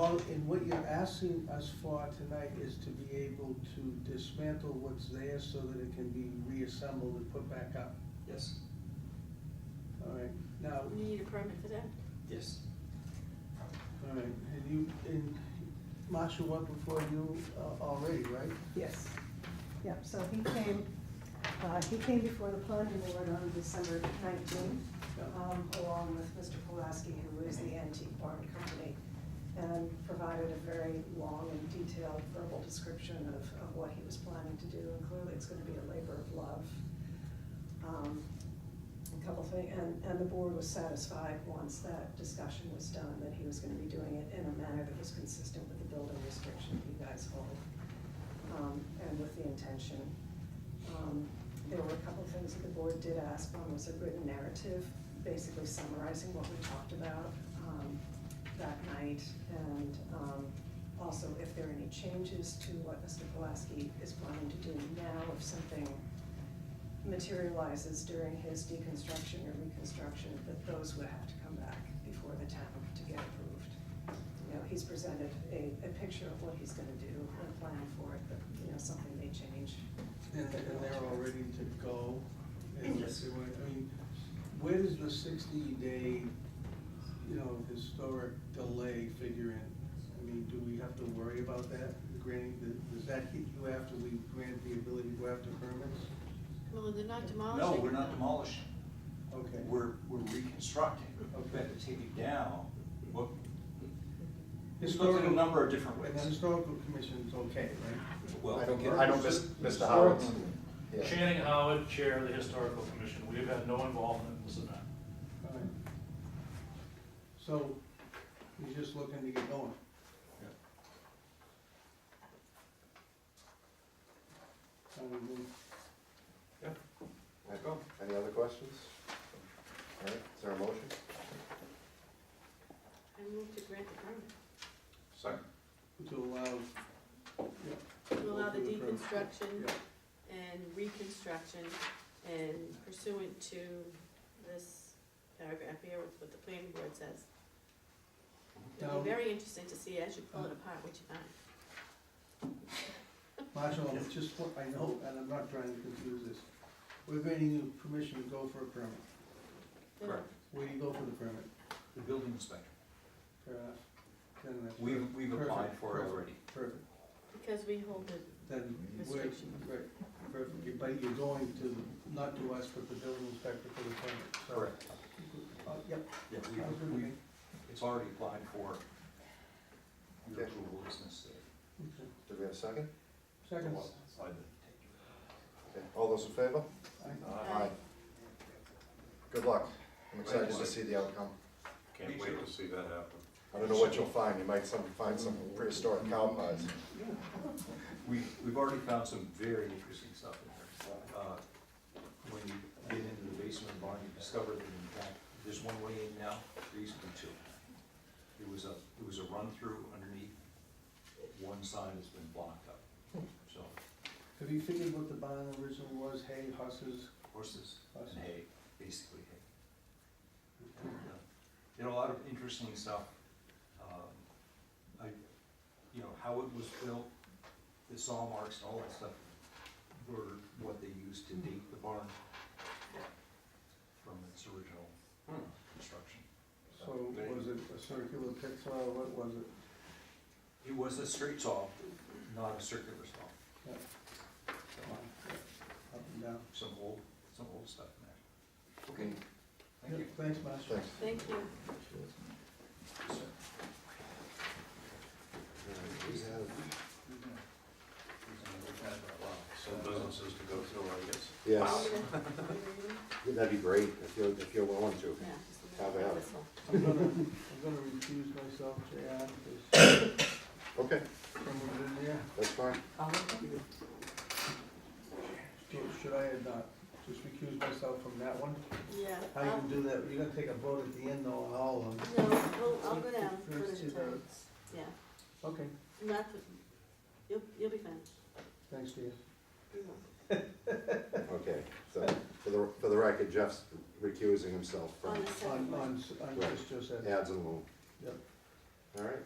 And what you're asking us for tonight is to be able to dismantle what's there so that it can be reassembled and put back up. Yes, All right, now, We need a permit for that? yes. all right, and you, and Marshall went before you uh, already, right? Yes, yeah, so he came, uh, he came before the planning board on December nineteenth, Yeah. um, along with Mr. Pulaski, who is the antique barn company, and provided a very long and detailed verbal description of, of what he was planning to do, and clearly it's gonna be a labor of love. Um, A couple things, and, and the board was satisfied once that discussion was done, that he was gonna be doing it in a manner that was consistent with the building restriction that you guys hold um, and with the intention. Um, There were a couple of things that the board did ask, one was a written narrative, basically summarizing what we talked about um, that night, and um, also if there are any changes to what Mr. Pulaski is planning to do now, if something materializes during his deconstruction or reconstruction, that those would have to come back before the town to get approved. You know, he's presented a, a picture of what he's gonna do and a plan for it, but, you know, something may change. And, and they're all ready to go. And Yes. they went- I mean, where does the sixty day, you know, historic delay figure in? I mean, do we have to worry about that, granting, the- does that hit you after we grant the ability to go after permits? Well, they're not demolishing. No, we're it. not demolishing. Okay. We're, we're reconstructing. Okay. We have to take it down. What, We've Historical looked at a number of different ways. And the historical commission's okay, right? well, I we don't, can- I don't miss, Mr. Howard. Yeah. Channing Howard, Chair of the Historical Commission, we have had no involvement in this event. All right. So, you're just looking to get going? I would move. Okay. Any other questions? All right, is there a motion? I move to grant the Second. To allow, permit, to allow the Move to approve. deconstruction yeah, and reconstruction and pursuant to this paragraph here with what the planning board says. It'll No. be very interesting to see as you pull it apart what you find. Marshall, it's just what I know, and I'm not trying to confuse this. We're granting you permission to go for a permit. Correct. Where do you go for the permit? The building inspector. Fair enough. Then that's We've, perfect. we've applied for it already. Perfect, Because we hold the then we're, restriction. right, perfect, You- but you're going to, not to us, but the building inspector for the permit, so. Uh, Yep, I Yeah, was gonna we, we, make- it's already applied for. Your Okay. approval is necessary. okay. Do we have a second? Second, Okay, All those in favor? I- Aye. Good luck. I'm Right, excited to Mike. see the outcome. Me Can't wait too. to see that happen. I don't know what you'll find. You might some, find some prehistoric cow pies. We, we've already found some very interesting stuff in there. Uh, When you get into the basement barn, you discover that in fact, there's one way in now, there used to be two. It was a, it was a run-through underneath, one side has been blocked up. So have you figured what the bond original was, hay, husses, horses husses? and hay, basically hay. And, uh, Did a lot of interesting stuff. Um, I, you know, how it was built, the saw marks and all that stuff were what they used to date the barn from its original Hmm. construction. So was it a circular pit soil, what was it? It was a straight saw, not a circular saw. Yeah. So, Up and down? Some old, some old stuff in there. Okay, thank you. Yeah, Thanks, Marshall. Thanks. Thank you. Yes, sir. We have- Some businesses to go through, I guess. Yes, Yeah, that'd be great if you're, if you're willing to. just How a minute, about- this one. I'm gonna, I'm gonna recuse myself, JR, because Okay, someone's in there. that's fine. Should- Should I have not, just recuse myself from that one? Yeah. How you gonna do that? You're gonna take a vote at the end though on all of them. I'll- No, I'll- I'll go down, one First at two a time. votes. Yeah, Okay, not, the- you'll, you'll be fine. thanks, dear. You won't. Okay, so for the, for the record, Jeff's recusing himself from On the second On, one. on, s- on Right. just Josette. ads and loan. Yep. All right,